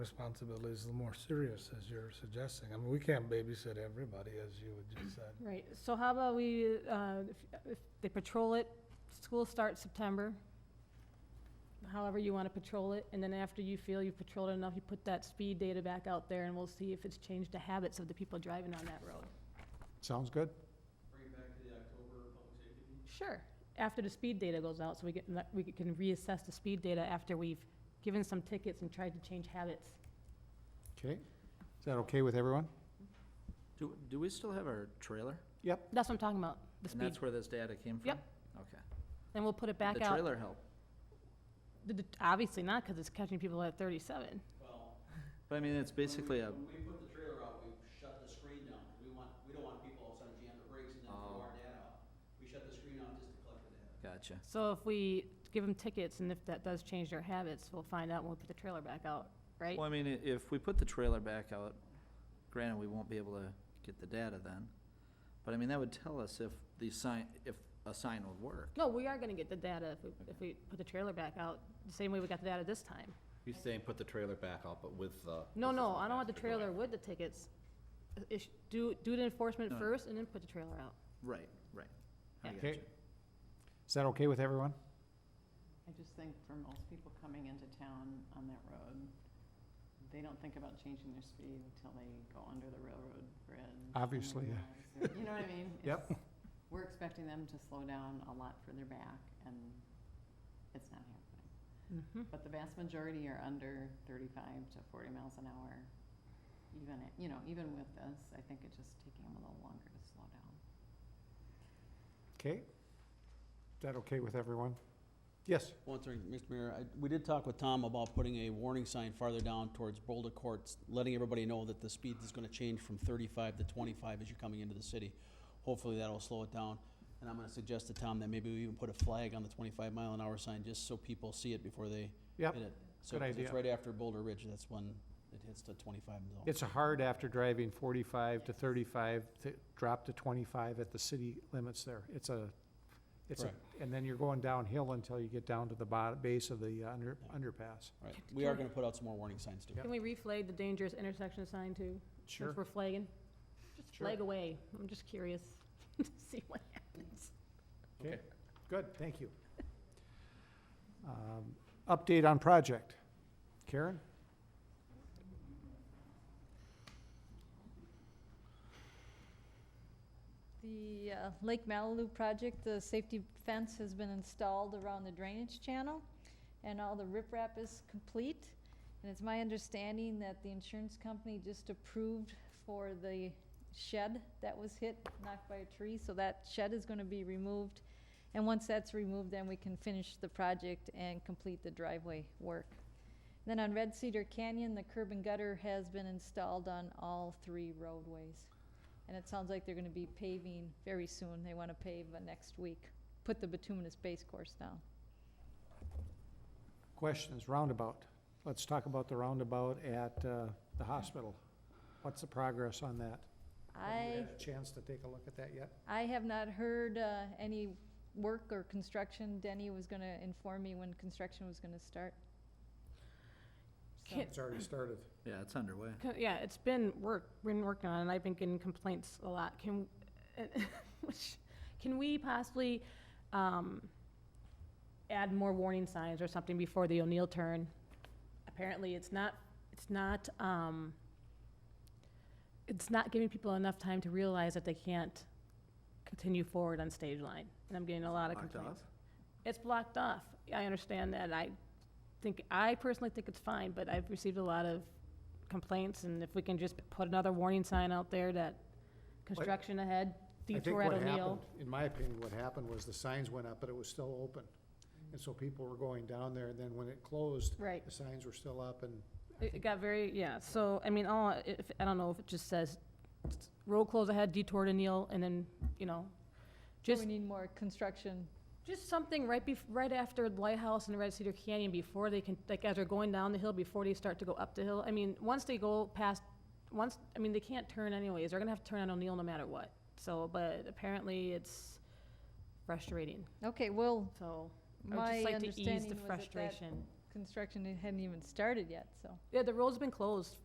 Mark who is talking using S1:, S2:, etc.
S1: responsibilities, the more serious as you're suggesting. I mean, we can't babysit everybody, as you would just said.
S2: Right, so how about we, uh, if- if they patrol it, school starts September, however you want to patrol it, and then after you feel you've patrolled it enough, you put that speed data back out there, and we'll see if it's changed the habits of the people driving on that road.
S3: Sounds good.
S2: Sure, after the speed data goes out, so we get, we can reassess the speed data after we've given some tickets and tried to change habits.
S3: Okay. Is that okay with everyone?
S4: Do, do we still have our trailer?
S2: That's what I'm talking about, the
S4: And
S2: speed.
S4: that's where this data came from?
S2: Yep.
S4: Okay.
S2: Then we'll put it
S4: The
S2: back out.
S4: trailer help.
S2: The- the- Obviously not, because it's catching people at thirty-seven.
S4: But I mean, it's basically uh, a,
S5: When we put the trailer out, we shut the screen down, 'cause we want, we don't want people all of a sudden jam the brakes and then throw
S4: Oh.
S5: our data out. We shut the screen out just to collect the data.
S4: gotcha.
S2: So if we give them tickets and if that does change their habits, we'll find out when we put the trailer back out, right?
S4: Well, I mean, i- if we put the trailer back out, granted, we won't be able to get the data then. But I mean, that would tell us if the sign, if a sign would work.
S2: No, we are gonna get the data if we, if we put the trailer back out, the same way we got the data this time.
S6: He's saying put the trailer back out, but with the.
S2: No,
S6: with
S2: no, I don't want the
S6: faster going.
S2: trailer with the tickets. Ish- Do, do the enforcement
S4: No.
S2: first and then put the trailer out.
S4: Right, right. I
S2: Yeah.
S3: Okay.
S4: gotcha.
S3: Is that okay with everyone?
S7: I just think for most people coming into town on that road, they don't think about changing their speed until they go under the railroad bridge. and
S3: Obviously, yeah.
S7: realize they're- You know what I mean?
S3: Yep.
S7: It's- We're expecting them to slow down a lot further back, and it's not happening.
S2: Mhm.
S7: But the vast majority are under thirty-five to forty miles an hour. Even, at- you know, even with this, I think it's just taking them a little longer to slow down.
S3: Okay. Is that okay with everyone? Yes.
S5: One thing, Mr. Mayor, I, we did talk with Tom about putting a warning sign farther down towards Boulder Courts, letting everybody know that the speed is gonna change from thirty-five to twenty-five as you're coming into the city. Hopefully that'll slow it down. And I'm gonna suggest to Tom that maybe we even put a flag on the twenty-five mile an hour sign, just so people see it before they
S3: Yep.
S5: hit it. So,
S3: good
S5: 'cause it's
S3: idea.
S5: right after Boulder Ridge, that's when it hits the twenty-five zone.
S3: It's hard after driving forty-five to thirty-five to drop to twenty-five at the city limits there. It's a, it's a,
S5: Correct.
S3: and then you're going downhill until you get down to the bottom, base of the uh, under, underpass.
S5: Right, we are gonna put out some more warning signs too.
S3: Yep.
S2: Can we reflag the dangerous intersection sign too? Since we're flagging, just
S3: Sure.
S2: flag away. I'm just curious to see what happens.
S3: Okay, good, thank you. Um, Update on project. Karen?
S8: The uh, Lake Malibu project, the safety fence has been installed around the drainage channel, and all the riprap is complete. And it's my understanding that the insurance company just approved for the shed that was hit, knocked by a tree, so that shed is gonna be removed. And once that's removed, then we can finish the project and complete the driveway work. Then on Red Cedar Canyon, the curb and gutter has been installed on all three roadways. And it sounds like they're gonna be paving very soon. They wanna pave uh, next week, put the bituminous base course down.
S3: Questions, roundabout. Let's talk about the roundabout at uh, the hospital. What's the progress on that? Have you
S8: I,
S3: had a Chance to take a look at that yet?
S8: I have not heard, uh, any work or construction. Denny was gonna inform me when construction was gonna start. So-
S2: Can't-
S3: It's already started.
S4: Yeah, it's underway.
S2: Co- Yeah, it's been work, been working on it, and I've been getting complaints a lot. Can, which- can we possibly, um, add more warning signs or something before the O'Neill turn? Apparently, it's not, it's not, um, it's not giving people enough time to realize that they can't continue forward on stage line, and I'm getting a lot of
S4: Locked
S2: complaints.
S4: off?
S2: It's blocked off. I understand that. I think, I personally think it's fine, but I've received a lot of complaints, and if we can just put another warning sign out there that construction ahead,
S3: I think
S2: detour at
S3: what
S2: O'Neill.
S3: happened, in my opinion, what happened was the signs went up, but it was still open. And so people were going down there, and then when it closed,
S2: Right.
S3: the signs were still up, and I
S2: It
S3: think
S2: got very, yeah, so, I mean, all, if, I don't know if it just says road close ahead, detour to O'Neill, and then, you know,
S8: So
S2: just,
S8: we need more construction.
S2: just something right bef, right after Lighthouse and Red Cedar Canyon before they can, like, as they're going down the hill, before they start to go up the hill. I mean, once they go past, once, I mean, they can't turn anyways. They're gonna have to turn on O'Neill no matter what. So, but apparently it's frustrating,
S8: Okay, well,
S2: so. I would
S8: my
S2: just like to ease
S8: understanding
S2: the
S8: was that that
S2: frustration.
S9: construction hadn't even started yet, so.
S8: Yeah, the road's been closed